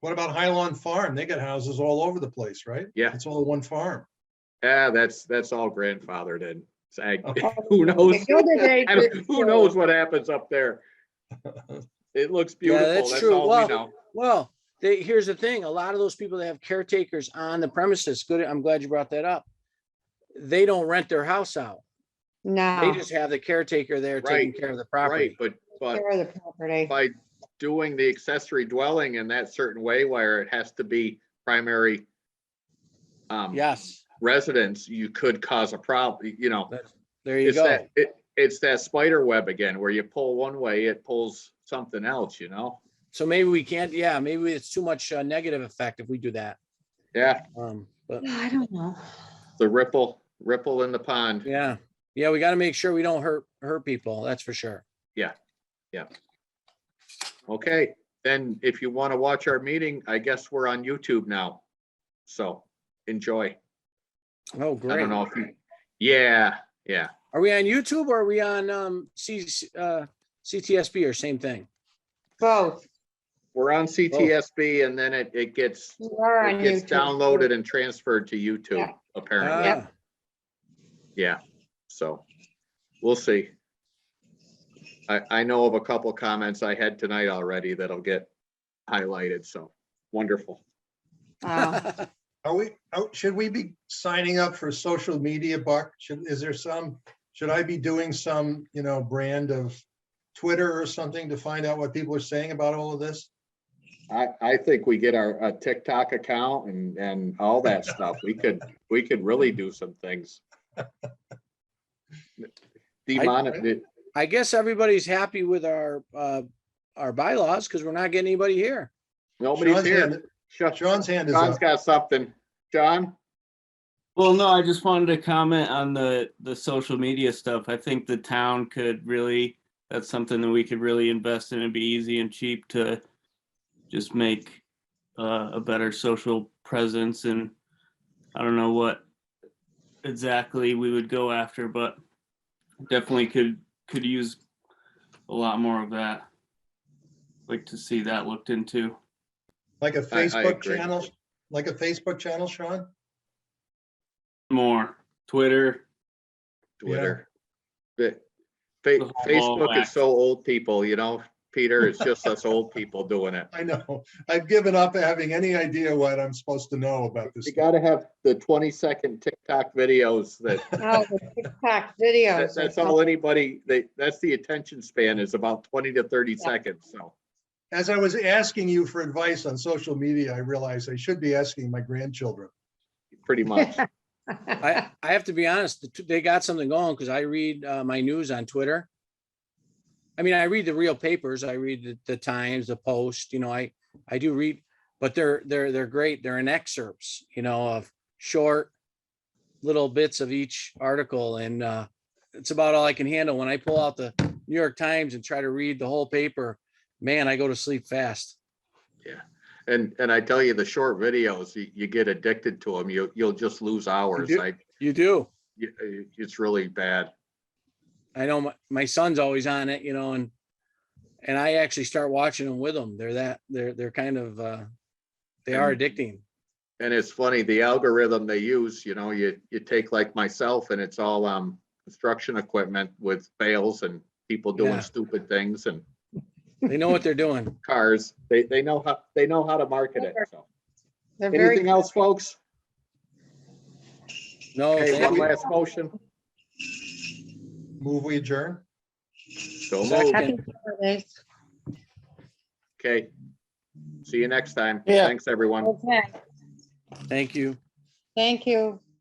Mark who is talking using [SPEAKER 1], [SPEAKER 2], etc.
[SPEAKER 1] What about Highland Farm? They got houses all over the place, right?
[SPEAKER 2] Yeah.
[SPEAKER 1] It's all one farm.
[SPEAKER 2] Yeah, that's, that's all grandfathered in. It's ag-
[SPEAKER 1] Okay.
[SPEAKER 2] Who knows?
[SPEAKER 3] The other day,
[SPEAKER 2] I don't- Who knows what happens up there? It looks beautiful.
[SPEAKER 4] that's
[SPEAKER 2] That's
[SPEAKER 4] true.
[SPEAKER 2] all we
[SPEAKER 4] Well-
[SPEAKER 2] know.
[SPEAKER 4] Well, they, here's the thing, a lot of those people that have caretakers on the premises, good, I'm glad you brought that up. They don't rent their house out. They
[SPEAKER 3] No,
[SPEAKER 4] just have the caretaker there taking
[SPEAKER 2] Right,
[SPEAKER 4] care of the
[SPEAKER 2] Right,
[SPEAKER 4] property.
[SPEAKER 2] but, but
[SPEAKER 3] they're the property.
[SPEAKER 2] by doing the accessory dwelling in that certain way where it has to be primary um,
[SPEAKER 4] Yes,
[SPEAKER 2] residence, you could cause a problem, you know.
[SPEAKER 4] there you
[SPEAKER 2] It's
[SPEAKER 4] go.
[SPEAKER 2] that, it, it's that spider web again, where you pull one way, it pulls something else, you know?
[SPEAKER 4] So maybe we can't, yeah, maybe it's too much uh, negative effect if we do that.
[SPEAKER 2] Yeah,
[SPEAKER 4] Um, but
[SPEAKER 3] I don't know.
[SPEAKER 2] the ripple, ripple in the pond.
[SPEAKER 4] yeah, yeah, we gotta make sure we don't hurt, hurt people, that's for sure.
[SPEAKER 2] Okay, then if you want to watch our meeting, I guess we're on YouTube now. So enjoy.
[SPEAKER 4] Oh,
[SPEAKER 2] I
[SPEAKER 4] great.
[SPEAKER 2] don't know if you, yeah, yeah.
[SPEAKER 4] Are we on YouTube or are we on, um, C, uh, CTSB or same thing?
[SPEAKER 3] Both.
[SPEAKER 2] We're on CTSB and then it, it gets,
[SPEAKER 3] You are on
[SPEAKER 2] it gets
[SPEAKER 3] YouTube.
[SPEAKER 2] downloaded and transferred to YouTube
[SPEAKER 3] Yeah.
[SPEAKER 2] apparently.
[SPEAKER 4] Ah,
[SPEAKER 3] Yep.
[SPEAKER 2] Yeah, so we'll see. I, I know of a couple comments I had tonight already that'll get highlighted, so wonderful.
[SPEAKER 3] Wow.
[SPEAKER 1] Are we, oh, should we be signing up for social media, Buck? Should, is there some, should I be doing some, you know, brand of Twitter or something to find out what people are saying about all of this?
[SPEAKER 2] I, I think we get our a TikTok account and, and all that stuff. We could, we could really do some things. Demonet,
[SPEAKER 4] I guess everybody's happy with our, uh, our bylaws because we're not getting anybody here.
[SPEAKER 2] nobody's
[SPEAKER 1] Sean's
[SPEAKER 2] here.
[SPEAKER 1] hand-
[SPEAKER 2] Sha-
[SPEAKER 1] Sean's hand is
[SPEAKER 2] Sean's
[SPEAKER 1] up.
[SPEAKER 2] got something. John?
[SPEAKER 5] Well, no, I just wanted to comment on the, the social media stuff. I think the town could really, that's something that we could really invest in and be easy and cheap to just make uh, a better social presence and I don't know what exactly we would go after, but definitely could, could use a lot more of that. Like to see that looked into.
[SPEAKER 1] Like a
[SPEAKER 2] I
[SPEAKER 1] Facebook
[SPEAKER 2] agree.
[SPEAKER 1] channel, like a Facebook channel, Sean?
[SPEAKER 5] More Twitter,
[SPEAKER 2] Twitter. Fa- fa-
[SPEAKER 5] whole
[SPEAKER 2] Facebook
[SPEAKER 5] whack.
[SPEAKER 2] is so old people, you know, Peter, it's just us old people doing it.
[SPEAKER 1] I know. I've given up having any idea what I'm supposed to know about this.
[SPEAKER 2] You
[SPEAKER 1] stuff.
[SPEAKER 2] gotta have the twenty second TikTok videos that,
[SPEAKER 3] Oh, the TikTok
[SPEAKER 2] that-
[SPEAKER 3] videos.
[SPEAKER 2] that's all anybody, they, that's the attention span is about twenty to thirty
[SPEAKER 3] Yeah.
[SPEAKER 2] seconds, so.
[SPEAKER 1] As I was asking you for advice on social media, I realized I should be asking my grandchildren.
[SPEAKER 2] Pretty much.
[SPEAKER 4] I, I have to be honest, the two- they got something going because I read uh, my news on Twitter. I mean, I read the real papers. I read the, the Times, the Post, you know, I, I do read, but they're, they're, they're great. They're in excerpts, you know, of short little bits of each article. And uh, it's about all I can handle. When I pull out the New York Times and try to read the whole paper, man, I go to sleep fast.
[SPEAKER 2] And, and I tell you, the short videos, you, you get addicted to them, you, you'll just lose hours.
[SPEAKER 4] do.
[SPEAKER 2] I,
[SPEAKER 4] You do.
[SPEAKER 2] you- it's really bad.
[SPEAKER 4] I know my, my son's always on it, you know, and and I actually start watching them with them. They're that they're they're kind of uh they are
[SPEAKER 2] And-
[SPEAKER 4] addicting.
[SPEAKER 2] And it's funny, the algorithm they use, you know, you, you take like myself and it's all, um, construction equipment with bales and people
[SPEAKER 4] Yeah.
[SPEAKER 2] doing stupid things and
[SPEAKER 4] They know what they're doing.
[SPEAKER 2] cars. They, they know how, they know how to market it, so.
[SPEAKER 3] They're
[SPEAKER 2] Anything
[SPEAKER 3] very,
[SPEAKER 2] else, folks?
[SPEAKER 4] No,
[SPEAKER 2] Okay, one
[SPEAKER 4] thank you.
[SPEAKER 2] last motion.
[SPEAKER 1] Move we adjourn?
[SPEAKER 2] So
[SPEAKER 4] Second.
[SPEAKER 2] moved.
[SPEAKER 3] happy holidays.
[SPEAKER 2] Okay. See you next time.
[SPEAKER 4] Yeah.
[SPEAKER 2] Thanks, everyone.
[SPEAKER 3] Okay,
[SPEAKER 4] Thank you.
[SPEAKER 3] thank you.